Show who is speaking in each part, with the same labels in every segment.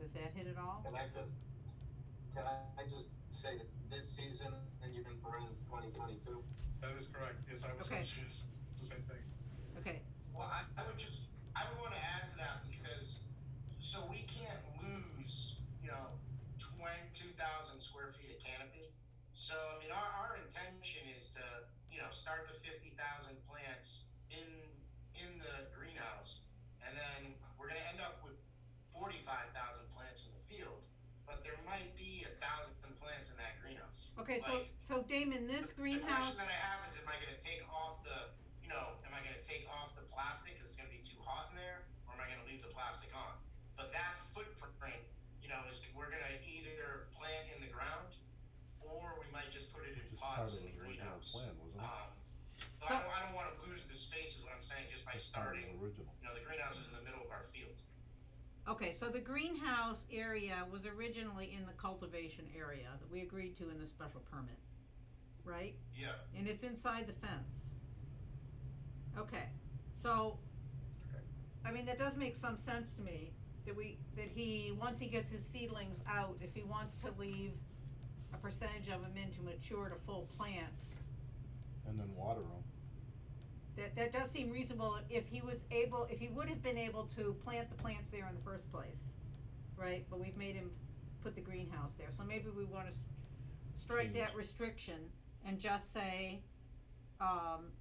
Speaker 1: Does that hit it all?
Speaker 2: Can I just, can I, I just say that this season, and you can bring twenty twenty-two?
Speaker 3: That is correct. Yes, I was
Speaker 1: Okay.
Speaker 3: conscious. It's the same thing.
Speaker 1: Okay,
Speaker 4: Well, I, I would just, I would want to add to that because, so we can't lose, you know, twen- 2,000 square feet of canopy. So, I mean, our, our intention is to, you know, start the 50,000 plants in, in the greenhouse. And then we're going to end up with 45,000 plants in the field, but there might be a thousand plants in that greenhouse.
Speaker 1: okay, so,
Speaker 4: Like-
Speaker 1: so Damon, this greenhouse,
Speaker 4: The question that I have is, am I gonna take off the, you know, am I gonna take off the plastic because it's gonna be too hot in there, or am I gonna leave the plastic on? But that footprint, you know, is we're gonna either plant in the ground, or we might just put it in
Speaker 5: Which is part of
Speaker 4: pots
Speaker 5: the
Speaker 4: in the
Speaker 5: original
Speaker 4: greenhouse.
Speaker 5: plan, wasn't it?
Speaker 4: Um, but I
Speaker 1: So-
Speaker 4: don't, I don't wanna lose the space is what I'm saying, just by
Speaker 5: It's part of
Speaker 4: starting,
Speaker 5: the Original.
Speaker 4: you know, the greenhouse is in the middle of our field.
Speaker 1: okay, so the greenhouse area was originally in the cultivation area that we agreed to in the special permit, right?
Speaker 4: Yeah,
Speaker 1: And it's inside the fence. Okay, so, I mean, that does make some sense to me, that we, that he, once he gets his seedlings out, if he wants to leave a percentage of them in to mature to full plants,
Speaker 5: And then water them.
Speaker 1: that, that does seem reasonable if he was able, if he would have been able to plant the plants there in the first place, right? But we've made him put the greenhouse there, so maybe we wanna s- strike that
Speaker 5: Change.
Speaker 1: restriction and just say, um,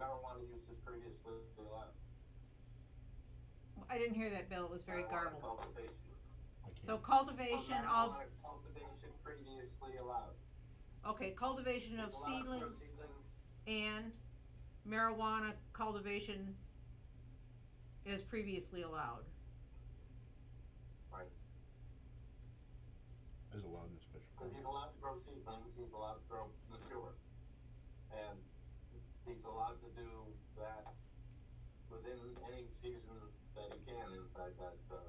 Speaker 2: Marijuana use is previously allowed.
Speaker 1: I didn't hear that, Bill, it was very
Speaker 2: Marijuana
Speaker 1: garbled.
Speaker 2: Cultivation.
Speaker 5: I can't.
Speaker 1: So cultivation of,
Speaker 2: Marijuana Cultivation previously allowed.
Speaker 1: okay, cultivation of
Speaker 2: Allowed for
Speaker 1: seedlings and marijuana cultivation as previously allowed,
Speaker 5: Is allowed in the special
Speaker 2: Cause
Speaker 5: permit.
Speaker 2: he's allowed to grow seedlings, he's allowed to grow mature. And he's allowed to do that within any season that he can inside that, uh,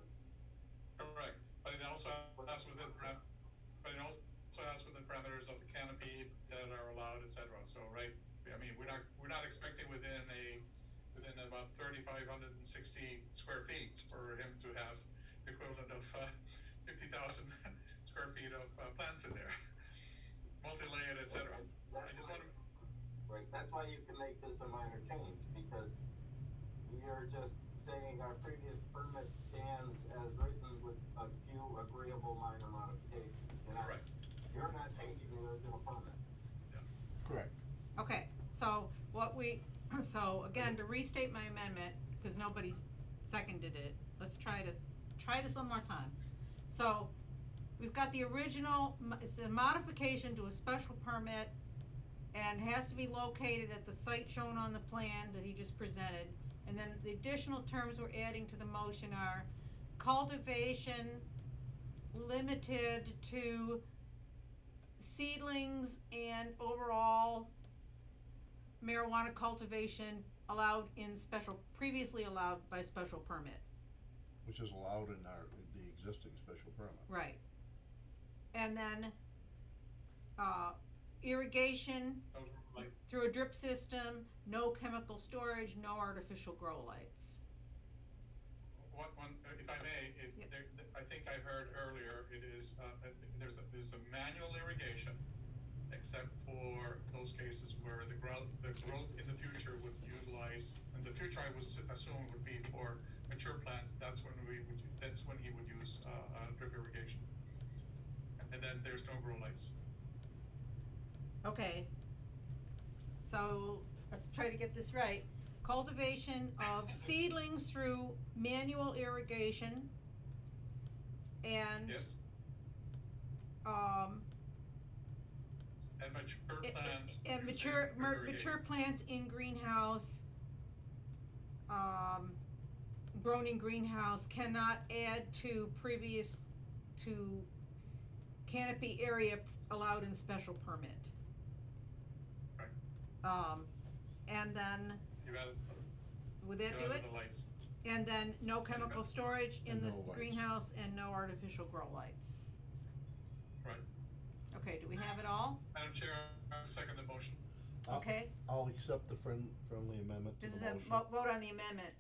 Speaker 3: Correct. But it also has within, param- but it also has within parameters of the canopy that are allowed, et cetera. So, right, I mean, we're not, we're not expecting within a, within about thirty-five hundred and sixty square feet for him to have the equivalent of, uh, fifty thousand square feet of, uh, plants in there. Multi-layered, et cetera. I
Speaker 2: That's
Speaker 3: just
Speaker 2: why-
Speaker 3: wanna-
Speaker 2: Right, that's why you can make this a minor change, because you're just saying our previous permit stands as written with a few agreeable minor modifications. You're not-
Speaker 3: Correct.
Speaker 2: You're not changing the original permit.
Speaker 5: Correct.
Speaker 1: okay, so what we, so again, to restate my amendment, cause nobody s- seconded it, let's try to, try this one more time. So, we've got the original, mo- it's a modification to a special permit and has to be located at the site shown on the plan that he just presented. And then the additional terms we're adding to the motion are cultivation limited to seedlings and overall marijuana cultivation allowed in special, previously allowed by special permit.
Speaker 5: Which is allowed in our, the existing special permit.
Speaker 1: Right. And then, uh, irrigation
Speaker 3: So, Like,
Speaker 1: through a drip system, no chemical storage, no artificial grow lights.
Speaker 3: One, one, uh, if I may, it,
Speaker 1: Yep.
Speaker 3: there, th- I think I heard earlier, it is, uh, uh, there's a, there's a manual irrigation, except for those cases where the growth, the growth in the future would utilize, and the future I would s- assume would be for mature plants, that's when we would, that's when he would use, uh, uh, drip irrigation. And then there's no grow lights.
Speaker 1: Okay. So, let's try to get this right. Cultivation of seedlings through manual irrigation and,
Speaker 3: Yes,
Speaker 1: um,
Speaker 3: and mature
Speaker 1: i- i-
Speaker 3: plants.
Speaker 1: and
Speaker 3: using
Speaker 1: mature,
Speaker 3: drip
Speaker 1: mer-
Speaker 3: irrigation.
Speaker 1: mature plants in greenhouse, um, grown in greenhouse cannot add to previous, to canopy area p- allowed in special permit.
Speaker 3: Correct.
Speaker 1: Um, and then,
Speaker 3: You added,
Speaker 1: would
Speaker 3: you
Speaker 1: that do
Speaker 3: added
Speaker 1: it?
Speaker 3: the lights.
Speaker 1: And then no chemical storage in
Speaker 5: And
Speaker 1: this
Speaker 5: no lights.
Speaker 1: greenhouse and no artificial grow lights.
Speaker 3: Right.
Speaker 1: Okay, do we have it all?
Speaker 3: Madam Chair, I second the motion.
Speaker 5: I'll-
Speaker 1: Okay,
Speaker 5: I'll accept the friend, friendly amendment to
Speaker 1: this
Speaker 5: the
Speaker 1: is
Speaker 5: motion.
Speaker 1: a vo- vote on the amendment.